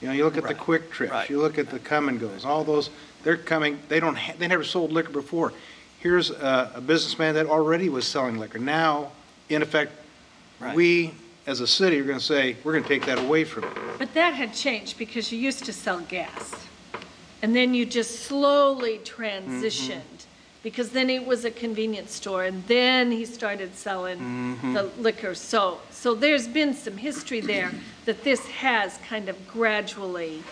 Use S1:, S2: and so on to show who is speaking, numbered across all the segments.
S1: You know, you look at the
S2: Right.
S1: quick trips,
S2: Right.
S1: you look at the come and goes, all those, they're coming, they don't, ha- they never sold liquor before. Here's a, a businessman that already was selling liquor. Now, in effect,
S2: Right.
S1: we, as a city, are gonna say, we're gonna take that away from you.
S3: But that had changed because you used to sell gas. And then you just slowly transitioned because then it was a convenience store and then he started selling the liquor. So, so there's been some history there that this has kind of gradually.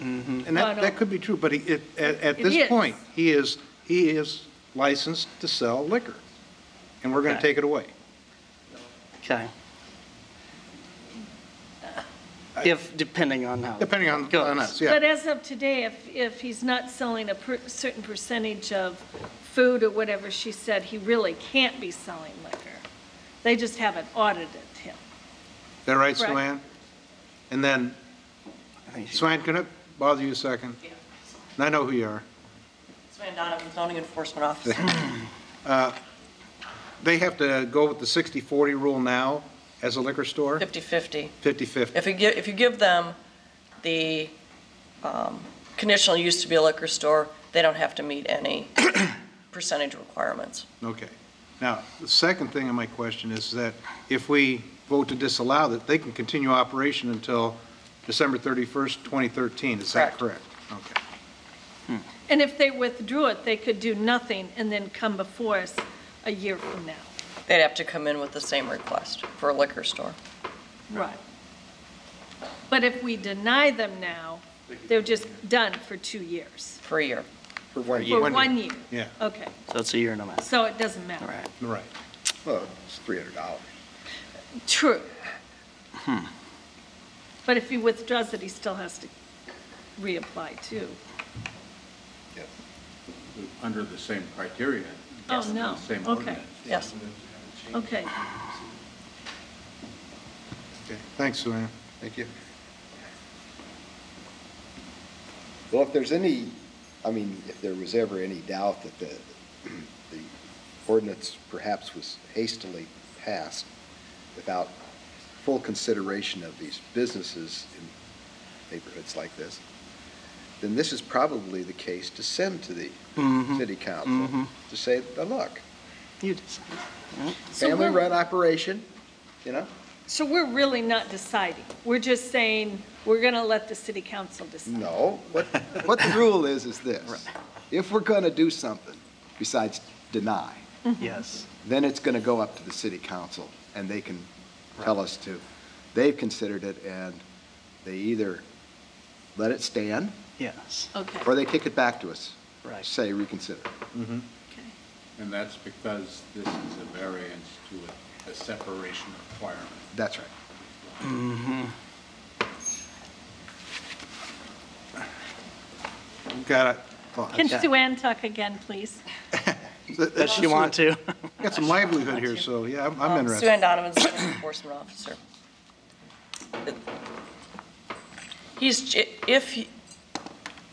S1: And that,
S3: But,
S1: that
S3: um,
S1: could be true, but he, it- at, at
S3: It
S1: this
S3: is.
S1: point, he is, he is licensed to sell liquor, and we're gonna
S2: Okay.
S1: take it away.
S2: Okay. If, depending on how.
S1: Depending on,
S2: Goes.
S1: on us,
S3: But
S1: yeah.
S3: as of today, if, if he's not selling a per- certain percentage of food or whatever she said, he really can't be selling liquor. They just haven't audited him.
S1: That right,
S3: Correct.
S1: Joanne? And then,
S2: I think she-
S1: Swan, can I bother you a second?
S4: Yeah.
S1: And I know who you are.
S4: It's Van Donovan, zoning enforcement officer.
S1: They have to go with the 60-40 rule now as a liquor store?
S4: 50/50.
S1: 50-50.
S4: If you give, if you give them the um, conditional use to be a liquor store, they don't have to meet any percentage requirements.
S1: Okay. Now, the second thing in my question is that if we vote to disallow that, they can continue operation until December 31st, 2013, is that correct?
S4: Correct.
S1: Okay.
S3: And if they withdrew it, they could do nothing and then come before us a year from now.
S4: They'd have to come in with the same request for a liquor store.
S3: Right. But if we deny them now, they're just done for two years.
S4: for a year.
S1: For one
S3: For one year?
S1: Yeah,
S3: Okay,
S2: So it's a year and a half.
S3: so it doesn't
S2: All
S3: matter.
S2: right.
S1: right.
S5: Well, it's three hundred dollars.
S3: True. But if he withdraws it, he still has to reapply too.
S6: under the same criteria.
S3: Oh, no.
S6: The same
S3: Okay.
S6: ordinance.
S4: Yes.
S3: Okay.
S1: Okay. Thanks, Joanne.
S5: Thank you. Well, if there's any, I mean, if there was ever any doubt that the, the ordinance perhaps was hastily passed without full consideration of these businesses in neighborhoods like this, then this is probably the case to send to the city council to say, "Now, look,
S2: You just-
S3: So we're,
S5: family-run operation, you know?
S3: so we're really not deciding. We're just saying, we're going to let the city council decide.
S5: No, what, what the rule is, is this. If we're going to do something besides deny,
S2: Yes.
S5: then it's going to go up to the city council, and they can tell us to, they've considered it, and they either let it stand,
S2: Yes.
S3: Okay.
S5: or they kick it back to us.
S2: Right.
S5: Say reconsider.
S3: Okay.
S6: And that's because this is a variance to a- a separation requirement.
S5: That's right.
S1: Got it.
S3: Can Sue Ann talk again, please?
S2: Does she want to?
S1: Got some livelihood here, so, yeah, I'm- I'm
S4: Um, Sue
S1: interested.
S4: Ann Donovan's the zoning enforcement officer. He's, j- if, he-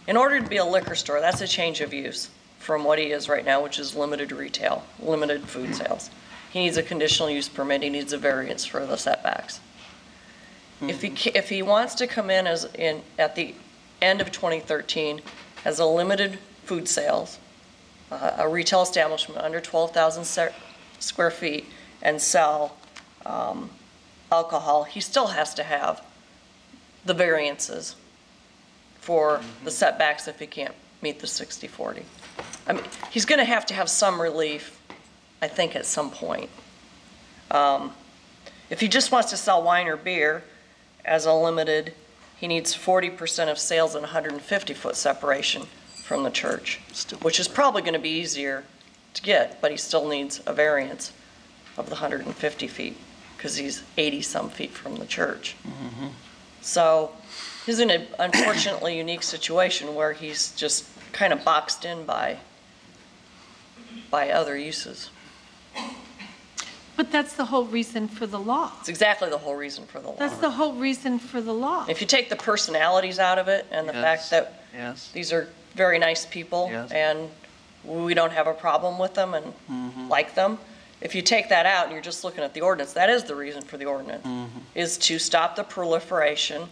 S4: in order to be a liquor store, that's a change of use from what he is right now, which is limited retail, limited food sales. He needs a conditional use permit, he needs a variance for the setbacks. If he, ca- if he wants to come in as, in, at the end of 2013, as a limited food sales, uh, a retail establishment under 12,000 se- square feet, and sell um, alcohol, he still has to have the variances for the setbacks if he can't meet the 60/40. I mean, he's going to have to have some relief, I think, at some point. Um, If he just wants to sell wine or beer as a limited, he needs 40% of sales and 150-foot separation from the church
S2: Still.
S4: which is probably going to be easier to get, but he still needs a variance of the 150 feet, because he's 80-some feet from the church.
S2: Mm-hmm.
S4: So he's in an unfortunately unique situation where he's just kind of boxed in by, by other uses.
S3: But that's the whole reason for the law.
S4: It's exactly the whole reason for the
S3: That's
S4: law.
S3: the whole reason for the law.
S4: If you take the personalities out of it and the
S2: Yes.
S4: fact that
S2: Yes.
S4: these are very nice people,
S2: Yes.
S4: and we don't have a problem with them
S2: Mm-hmm.
S4: and like them. If you take
S2: Mm-hmm.
S4: that out and you're just looking at the ordinance, that is the reason for the ordinance, is to stop the proliferation